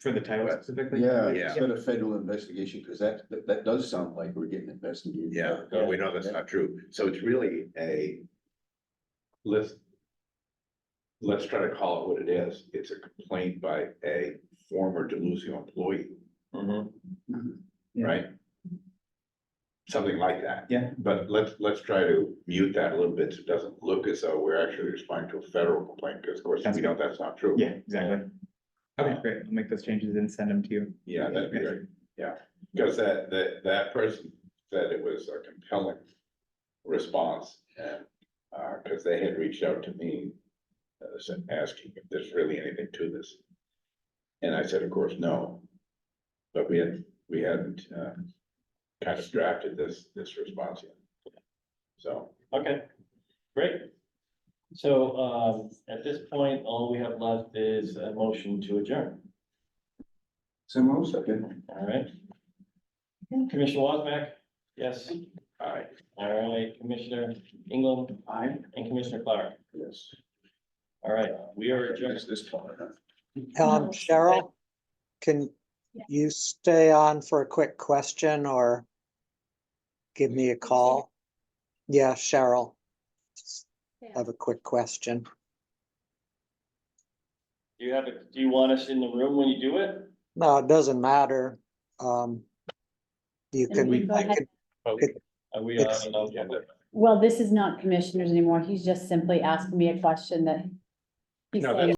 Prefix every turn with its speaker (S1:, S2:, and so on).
S1: for the title specifically?
S2: Yeah,
S3: Yeah.
S2: instead of federal investigation, because that, that, that does sound like we're getting investigated.
S3: Yeah, no, we know that's not true. So it's really a, let's, let's try to call it what it is. It's a complaint by a former Deluzio employee,
S1: Mhm. Yeah.
S3: right? Something like that.
S1: Yeah.
S3: But let's, let's try to mute that a little bit so it doesn't look as though we're actually responding to a federal complaint, because of course,
S1: That's
S3: we know that's not true.
S1: Yeah, exactly. Okay, great. I'll make those changes and send them to you.
S3: Yeah, that'd be great. Because that, that, that person said it was a compelling response and, uh, because they had reached out to me. uh, said- asking if there's really anything to this. And I said, of course, no. But we had, we hadn't, uh, kind of drafted this, this response yet. So,
S4: Okay, great. So, um, at this point, all we have left is a motion to adjourn,
S2: So most second.
S4: all right? Commissioner Wozniak, yes,
S3: all right,
S4: all right, Commissioner England
S2: I.
S4: and Commissioner Clark,
S2: Yes.
S4: all right, we are adjourned.
S2: Just this part, huh?
S5: Um, Cheryl, can you stay on for a quick question or give me a call? Yeah, Cheryl. I Have a quick question.
S4: Do you have, a- do you want us in the room when you do it?
S5: No, it doesn't matter. Um, you
S6: Can we
S5: can,
S6: go
S5: I
S6: ahead?
S5: could,
S4: Are Uh, we on an agenda?
S6: Well, this is not commissioners anymore. He's just simply asking me a question that he's
S3: No,
S6: saying